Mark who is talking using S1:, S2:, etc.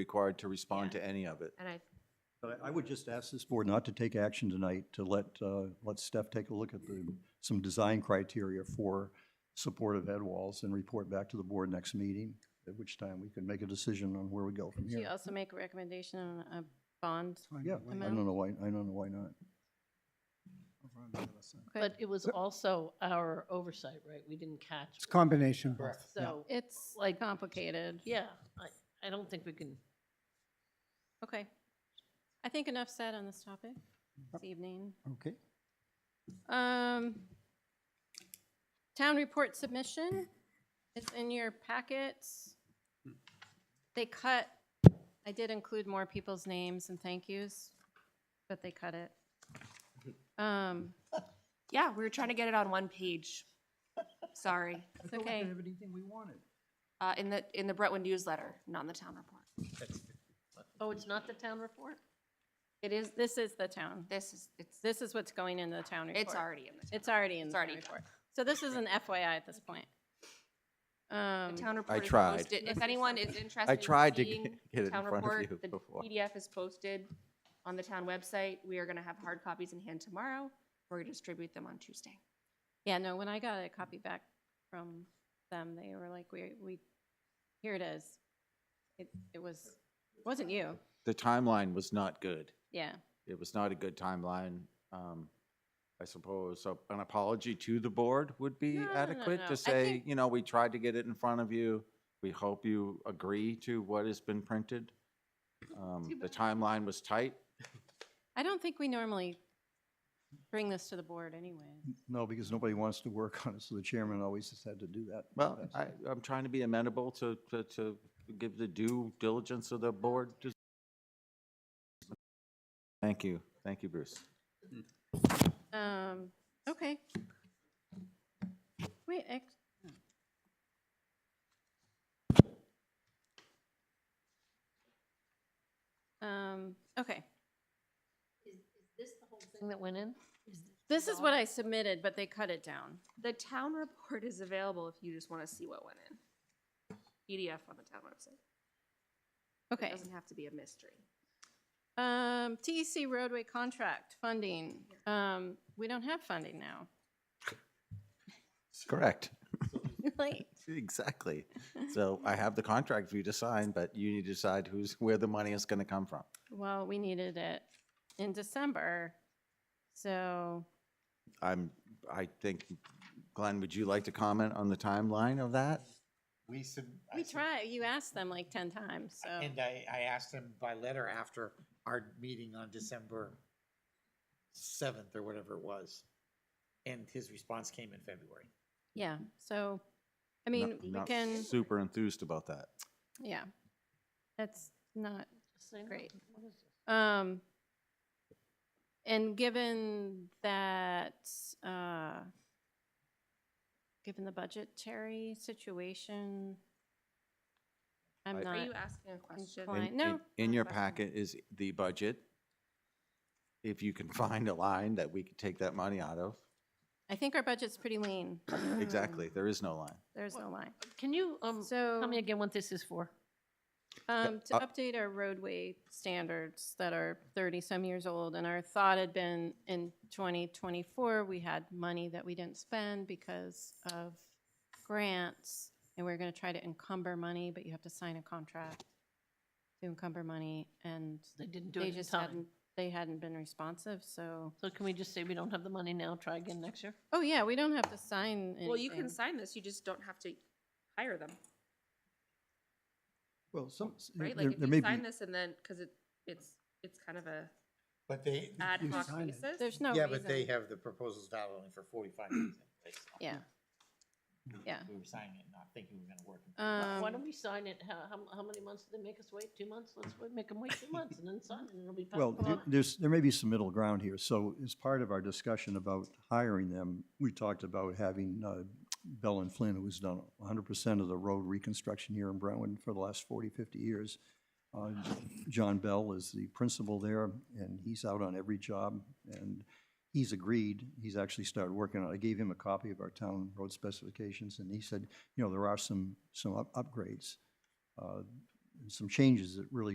S1: required to respond to any of it.
S2: And I,
S3: But I I would just ask this board not to take action tonight, to let, uh, let Steph take a look at the, some design criteria for supportive head walls and report back to the board next meeting, at which time we can make a decision on where we go from
S2: she
S3: here.
S2: also make a recommendation on a bond,
S3: Yeah, I
S2: amount?
S3: don't know why, I don't know why not.
S4: But it was also our oversight, right? We didn't catch.
S5: It's a combination of both. yeah.
S4: So,
S2: it's
S4: Like-
S2: complicated.
S4: yeah, I, I don't think we can,
S2: Okay. I think enough said on this topic this evening.
S5: Okay.
S2: Um, town report submission is in your packets. They cut, I did include more people's names and thank yous, but they cut it. Um,
S6: Yeah, we were trying to get it on one page. Sorry.
S2: it's okay.
S3: Everything we wanted.
S6: Uh, in the, in the Brentwood newsletter, not in the town report.
S4: oh, it's not the town report?
S2: It is, this is the town.
S6: This is, it's,
S2: This is what's going in the town report.
S6: it's already in the
S2: It's already in the
S6: It's
S2: town
S6: already
S2: report. So this is an FYI at this point.
S6: town. The
S2: Um,
S6: town report is
S1: tried.
S6: posted. If anyone is interested
S1: I
S6: in
S1: tried to
S6: seeing
S1: get- get it in
S6: town
S1: front of
S6: report,
S1: you
S6: the
S1: before.
S6: PDF is posted on the town website. We are gonna have hard copies in hand tomorrow. We're gonna distribute them on Tuesday.
S2: yeah, no, when I got a copy back from them, they were like, we, we, here it is. It, it was, wasn't you,
S1: The timeline was not good.
S2: yeah.
S1: It was not a good timeline. Um, I suppose so an apology to the board would be
S2: No, no, no,
S1: adequate
S2: no. I
S1: to say,
S2: think-
S1: you know, we tried to get it in front of you. We hope you agree to what has been printed. Um,
S6: Too
S1: The
S6: bad.
S1: timeline was tight.
S2: I don't think we normally bring this to the board anyway.
S3: No, because nobody wants to work on it, so the chairman always has had to do that.
S1: Well,
S3: That's-
S1: I, I'm trying to be amenable to, to, to give the due diligence of the board. to- Thank you, thank you, Bruce.
S2: Um, okay. Wait, ex- Um, okay,
S4: Thing that went in?
S2: this is what I submitted, but they cut it down.
S6: The town report is available if you just wanna see what went in. PDF on the town website. It
S2: Okay,
S6: doesn't have to be a mystery.
S2: um, TEC roadway contract funding, um, we don't have funding now.
S1: Correct.
S2: Like,
S1: Exactly. So I have the contract for you to sign, but you need to decide who's, where the money is gonna come from.
S2: well, we needed it in December, so,
S1: I'm, I think, Glenn, would you like to comment on the timeline of that?
S7: We sub. I
S2: we
S7: sub-
S2: try, you asked them like ten times, so.
S7: And I, I asked him by letter after our meeting on December seventh or whatever it was. And his response came in February.
S2: Yeah, so, I
S1: Not-
S2: mean, we
S1: not
S2: can,
S1: Super enthused about that.
S2: yeah, that's not,
S4: Say no.
S2: Great.
S4: What is this?
S2: um, and given that, uh, given the budgetary situation, I'm
S1: I-
S2: not,
S6: Are you asking a question?
S2: Fine.
S1: In- in-
S2: No.
S1: In your
S6: Question.
S1: packet is the budget. If you can find a line that we could take that money out of.
S2: I think our budget's pretty lean.
S1: Exactly, there is no line.
S2: There's no line.
S4: Can you, um,
S2: So,
S4: tell me again what this is for?
S2: um, to
S1: uh,
S2: update our roadway standards that are thirty-some years old, and our thought had been in twenty twenty-four, we had money that we didn't spend because of grants, and we're gonna try to encumber money, but you have to sign a contract to encumber money, and
S4: They didn't do
S2: they
S4: it in
S2: just
S4: time.
S2: hadn't, they hadn't been responsive, so,
S4: So can we just say we don't have the money now, try again next year?
S2: oh yeah, we don't have to sign anything.
S6: Well, you can sign this, you just don't have to hire them,
S3: Well, some, there
S6: right? Like, if
S3: there
S6: you
S3: may be,
S6: sign this and then, because it, it's, it's kind of a
S7: But they.
S6: ad
S5: you
S6: hoc
S5: sign it.
S6: basis.
S2: There's no
S7: Yeah,
S2: reason.
S7: but they have the proposals not only for forty-five days. anyway, so
S2: Yeah, yeah.
S7: We were signing it, not thinking we were gonna work. it.
S4: Why why
S2: Um,
S4: don't we sign it? How, how- how many months did they make us wait? Two months? Let's wait- make them wait two months and then sign it and it'll be. passed
S3: well,
S4: along.
S3: there- there's, there may be some middle ground here. So as part of our discussion about hiring them, we talked about having uh, Bell and Flynn, who's done 100% of the road reconstruction here in Brentwood for the last 40, 50 years. Uh, John Bell is the principal there, and he's out on every job, and he's agreed, he's actually started working on it. I gave him a copy of our town road specifications, and he said, you know, there are some, some up- upgrades uh, some changes that really